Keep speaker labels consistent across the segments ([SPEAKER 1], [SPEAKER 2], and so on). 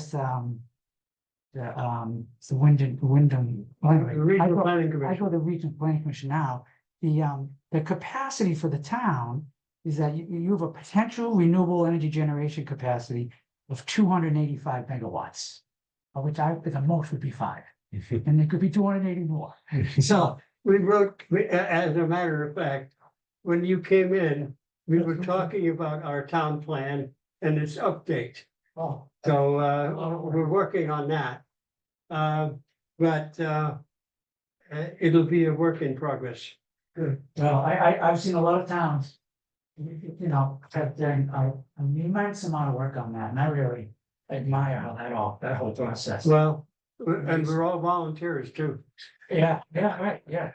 [SPEAKER 1] this, um. The, um, the Wyndham, Wyndham.
[SPEAKER 2] The Regional
[SPEAKER 1] I
[SPEAKER 2] Planning
[SPEAKER 1] go
[SPEAKER 2] Commission,
[SPEAKER 1] to Regional Planning Commission now, the, um, the capacity for the town. Is that you, you have a potential renewable energy generation capacity of two hundred and eighty-five megawatts. Of which I think the most would be five, and there could be two hundred and eighty more, so.
[SPEAKER 2] we wrote, we- a- as a matter of fact, when you came in, we were talking about our town plan and its update.
[SPEAKER 1] Oh.
[SPEAKER 2] So uh, we're working on that. Uh, But uh, uh, it'll be a work in progress.
[SPEAKER 1] Well, I, I, I've seen a lot of towns. You you know, have done a, an immense amount of work on that, and I really admire how that all, that whole process.
[SPEAKER 2] Well, and we're all volunteers too.
[SPEAKER 1] Yeah, yeah, right, yeah.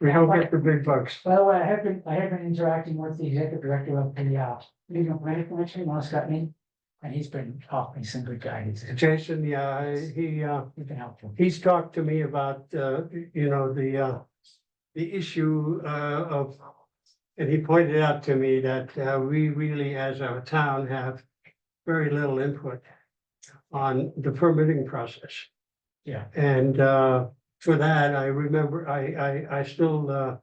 [SPEAKER 2] We don't get the big bucks.
[SPEAKER 1] By the way, I have been, I have been interacting with the executive director of the, uh, regional planning commission, Ross Gutney. And he's been offering some good guidance,
[SPEAKER 2] Jason, yeah, he uh,
[SPEAKER 1] he's been helpful.
[SPEAKER 2] he's talked to me about, uh, you know, the uh, the issue uh, of, and he pointed out to me that uh, we really, as a town, have very little input on the permitting process.
[SPEAKER 1] Yeah,
[SPEAKER 2] And uh, for that, I remember, I, I, I still uh,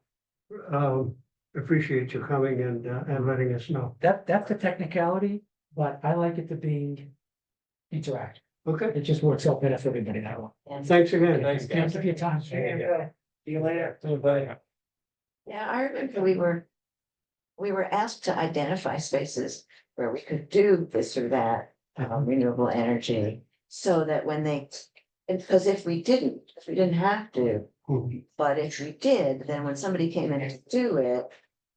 [SPEAKER 2] um, appreciate you coming and, uh, and letting us know.
[SPEAKER 1] that, that's the technicality, but I like it to be interactive.
[SPEAKER 2] Okay,
[SPEAKER 1] It just works out better for everybody that way.
[SPEAKER 2] thanks again.
[SPEAKER 1] Thanks for your time.
[SPEAKER 2] See you later. Bye.
[SPEAKER 3] Yeah, I remember we were, we were asked to identify spaces where we could do this or that, um, renewable energy. So that when they, because if we didn't, if we didn't have to, but if we did, then when somebody came in to do it.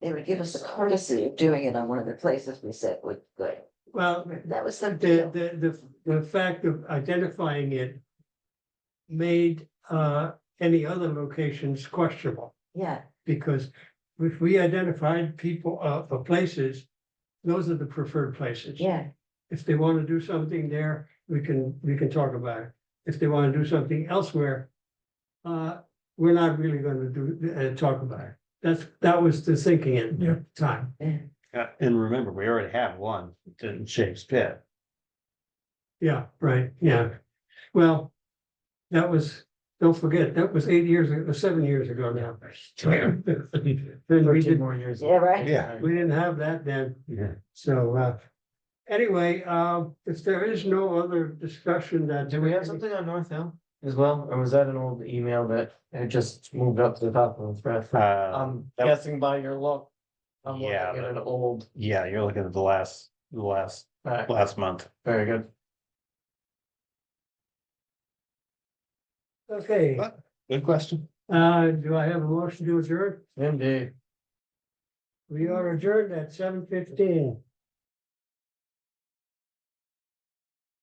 [SPEAKER 3] They would give us the courtesy of doing it on one of the places we said would good.
[SPEAKER 2] Well,
[SPEAKER 3] That was the
[SPEAKER 2] the,
[SPEAKER 3] deal.
[SPEAKER 2] the, the, the fact of identifying it made uh, any other locations questionable.
[SPEAKER 3] Yeah,
[SPEAKER 2] Because if we identified people, uh, uh, places, those are the preferred places.
[SPEAKER 3] yeah,
[SPEAKER 2] If they want to do something there, we can, we can talk about it. If they want to do something elsewhere, uh, we're not really going to do, uh, talk about it. That's, that was the thinking at the time.
[SPEAKER 3] yeah.
[SPEAKER 4] Uh, and remember, we already have one in Shakes Pit.
[SPEAKER 2] Yeah, right, yeah. Well, that was, don't forget, that was eight years, ago seven years ago now. Then we didn't,
[SPEAKER 1] more years.
[SPEAKER 3] Yeah, right?
[SPEAKER 4] Yeah.
[SPEAKER 2] we didn't have that then.
[SPEAKER 4] Yeah.
[SPEAKER 2] So, uh, anyway, uh, if there is no other discussion that.
[SPEAKER 5] Do we have something on North Hill as well, or was that an old email that it just moved up to the top of the thread?
[SPEAKER 1] Um,
[SPEAKER 4] Uh,
[SPEAKER 5] I'm
[SPEAKER 4] that-
[SPEAKER 5] guessing by your look. I'm looking
[SPEAKER 4] Yeah,
[SPEAKER 5] at
[SPEAKER 4] but-
[SPEAKER 5] an old,
[SPEAKER 4] yeah, you're looking at the last, the last,
[SPEAKER 5] alright,
[SPEAKER 4] last month.
[SPEAKER 5] very good.
[SPEAKER 2] Okay,
[SPEAKER 4] Good question.
[SPEAKER 2] uh, do I have a motion to adjourn?
[SPEAKER 5] Indeed.
[SPEAKER 2] We are adjourned at seven fifteen.